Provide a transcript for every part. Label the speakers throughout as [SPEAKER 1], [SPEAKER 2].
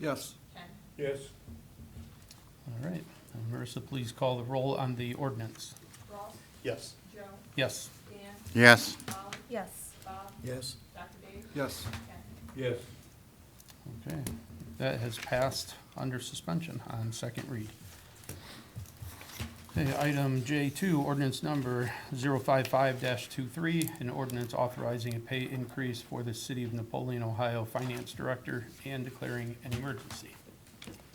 [SPEAKER 1] Yes.
[SPEAKER 2] Ken?
[SPEAKER 3] Yes.
[SPEAKER 4] All right. And Marissa, please call the roll on the ordinance.
[SPEAKER 2] Ross?
[SPEAKER 3] Yes.
[SPEAKER 2] Joe?
[SPEAKER 4] Yes.
[SPEAKER 2] Dan?
[SPEAKER 5] Yes.
[SPEAKER 2] Molly?
[SPEAKER 6] Yes.
[SPEAKER 2] Bob?
[SPEAKER 1] Yes.
[SPEAKER 2] Dr. Dave?
[SPEAKER 1] Yes.
[SPEAKER 2] Ken?
[SPEAKER 3] Yes.
[SPEAKER 4] Okay. That has passed under suspension on second read. Okay, item J2, ordinance number 055-23, an ordinance authorizing a pay increase for the City of Napoleon, Ohio Finance Director and declaring an emergency.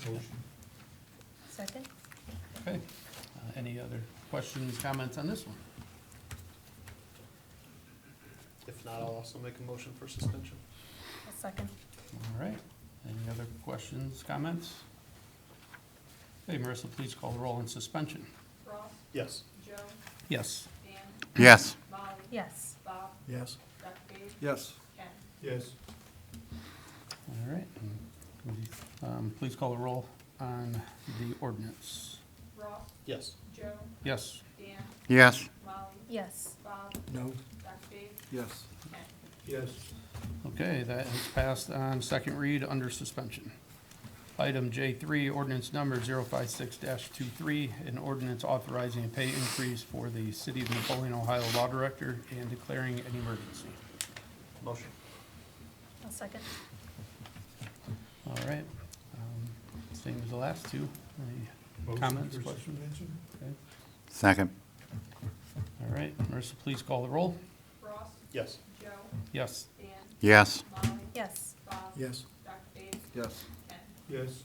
[SPEAKER 3] Motion.
[SPEAKER 6] Second?
[SPEAKER 4] Okay. Uh, Any other questions, comments on this one?
[SPEAKER 3] If not, I'll also make a motion for suspension.
[SPEAKER 6] A second.
[SPEAKER 4] All right. Any other questions, comments? Okay, Marissa, please call the roll on suspension.
[SPEAKER 2] Ross?
[SPEAKER 3] Yes.
[SPEAKER 2] Joe?
[SPEAKER 4] Yes.
[SPEAKER 2] Dan?
[SPEAKER 5] Yes.
[SPEAKER 2] Molly?
[SPEAKER 6] Yes.
[SPEAKER 2] Bob?
[SPEAKER 1] Yes.
[SPEAKER 2] Dr. Dave?
[SPEAKER 1] Yes.
[SPEAKER 2] Ken?
[SPEAKER 3] Yes.
[SPEAKER 4] All right. Um, Please call the roll on the ordinance.
[SPEAKER 2] Ross?
[SPEAKER 3] Yes.
[SPEAKER 2] Joe?
[SPEAKER 4] Yes.
[SPEAKER 2] Dan?
[SPEAKER 5] Yes.
[SPEAKER 2] Molly?
[SPEAKER 6] Yes.
[SPEAKER 2] Bob?
[SPEAKER 1] No.
[SPEAKER 2] Dr. Dave?
[SPEAKER 1] Yes.
[SPEAKER 2] Ken?
[SPEAKER 3] Yes.
[SPEAKER 4] Okay, that has passed on second read under suspension. Item J3, ordinance number 056-23, an ordinance authorizing a pay increase for the City of Napoleon, Ohio Law Director and declaring an emergency.
[SPEAKER 3] Motion.
[SPEAKER 6] A second.
[SPEAKER 4] All right. Um, Same as the last two. Any Comments, questions?
[SPEAKER 5] Second.
[SPEAKER 4] All right, Marissa, please call the roll.
[SPEAKER 2] Ross?
[SPEAKER 3] Yes.
[SPEAKER 2] Joe?
[SPEAKER 4] Yes.
[SPEAKER 2] Dan?
[SPEAKER 5] Yes.
[SPEAKER 2] Molly?
[SPEAKER 6] Yes.
[SPEAKER 2] Bob?
[SPEAKER 1] Yes.
[SPEAKER 2] Dr. Dave?
[SPEAKER 1] Yes.
[SPEAKER 2] Ken?
[SPEAKER 3] Yes.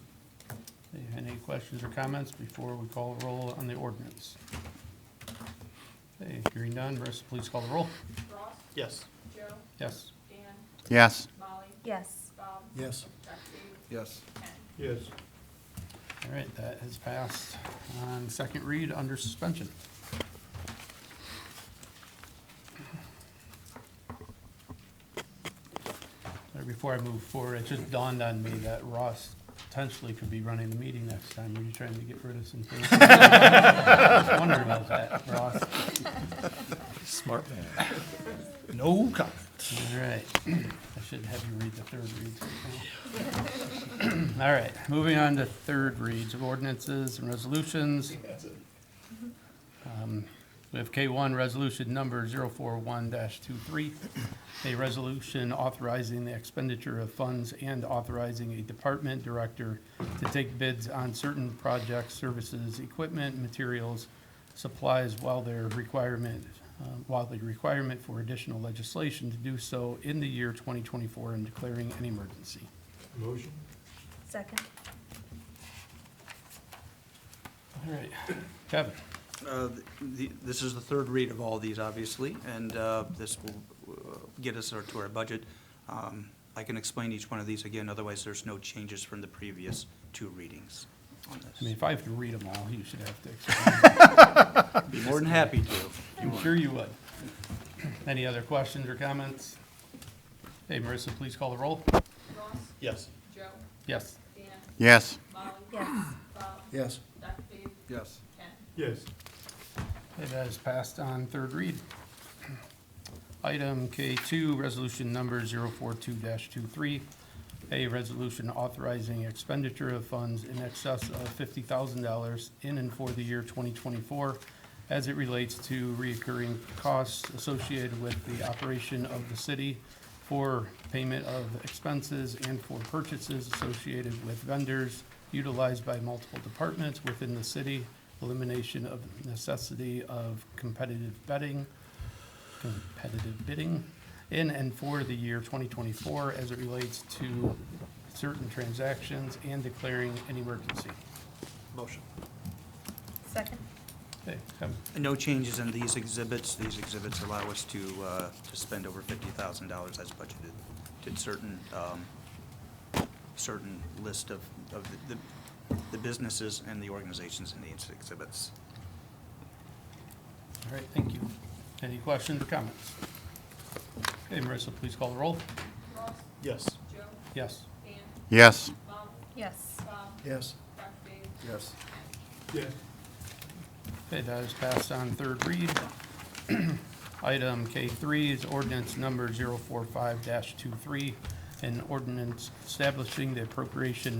[SPEAKER 4] Any questions or comments before we call the roll on the ordinance? Okay, hearing none, Marissa, please call the roll.
[SPEAKER 2] Ross?
[SPEAKER 3] Yes.
[SPEAKER 2] Joe?
[SPEAKER 4] Yes.
[SPEAKER 2] Dan?
[SPEAKER 5] Yes.
[SPEAKER 2] Molly?
[SPEAKER 6] Yes.
[SPEAKER 2] Bob?
[SPEAKER 1] Yes.
[SPEAKER 2] Dr. Dave?
[SPEAKER 1] Yes.
[SPEAKER 2] Ken?
[SPEAKER 3] Yes.
[SPEAKER 4] All right, that has passed on second read under suspension. All right, Before I move forward, it just dawned on me that Ross potentially could be running the meeting next time. Were you trying to get rid of some things? I wondered about that, Ross.
[SPEAKER 7] Smart man. No comment.
[SPEAKER 4] All right, I should have you read the third reads. right now. All right, moving on to third reads of ordinances and resolutions. Um, We have K1, resolution number 041-23, a resolution authorizing the expenditure of funds and authorizing a department director to take bids on certain projects, services, equipment, materials, supplies while their requirement, uh, while the requirement for additional legislation to do so in the year 2024 and declaring an emergency.
[SPEAKER 3] Motion.
[SPEAKER 6] Second?
[SPEAKER 4] All right, Kevin,
[SPEAKER 7] Uh, the- This is the third read of all these, obviously, and uh, this will uh, get us our- to our budget. Um, I can explain each one of these again, otherwise there's no changes from the previous two readings on
[SPEAKER 4] I mean,
[SPEAKER 7] this.
[SPEAKER 4] if I have to read them all, you should have to explain
[SPEAKER 7] Be more than happy to.
[SPEAKER 4] I'm sure you would. Any other questions or comments? Hey, Marissa, please call the roll.
[SPEAKER 2] Ross?
[SPEAKER 3] Yes.
[SPEAKER 2] Joe?
[SPEAKER 4] Yes.
[SPEAKER 2] Dan?
[SPEAKER 5] Yes.
[SPEAKER 2] Molly?
[SPEAKER 6] Yes.
[SPEAKER 2] Bob?
[SPEAKER 1] Yes.
[SPEAKER 2] Dr. Dave?
[SPEAKER 1] Yes.
[SPEAKER 2] Ken?
[SPEAKER 3] Yes.
[SPEAKER 4] It has passed on third read. Item K2, resolution number 042-23, a resolution authorizing expenditure of funds in excess of $50,000 in and for the year 2024 as it relates to reoccurring costs associated with the operation of the city for payment of expenses and for purchases associated with vendors utilized by multiple departments within the city, elimination of necessity of competitive betting, competitive bidding in and for the year 2024 as it relates to certain transactions and declaring an emergency.
[SPEAKER 3] Motion.
[SPEAKER 6] Second?
[SPEAKER 4] Okay, Kevin.
[SPEAKER 7] No changes in these exhibits. These exhibits allow us to uh, to spend over $50,000 as budgeted. Did certain, um, certain list of, of the- the- the businesses and the organizations in these exhibits.
[SPEAKER 4] All right, thank you. Any questions or comments? Okay, Marissa, please call the roll.
[SPEAKER 2] Ross?
[SPEAKER 3] Yes.
[SPEAKER 2] Joe?
[SPEAKER 4] Yes.
[SPEAKER 2] Dan?
[SPEAKER 5] Yes.
[SPEAKER 2] Molly?
[SPEAKER 6] Yes.
[SPEAKER 2] Bob?
[SPEAKER 1] Yes.
[SPEAKER 2] Dr. Dave?
[SPEAKER 1] Yes.
[SPEAKER 3] Yes.
[SPEAKER 4] Okay, that is passed on third read. Item K3 is ordinance number 045-23, an ordinance establishing the appropriation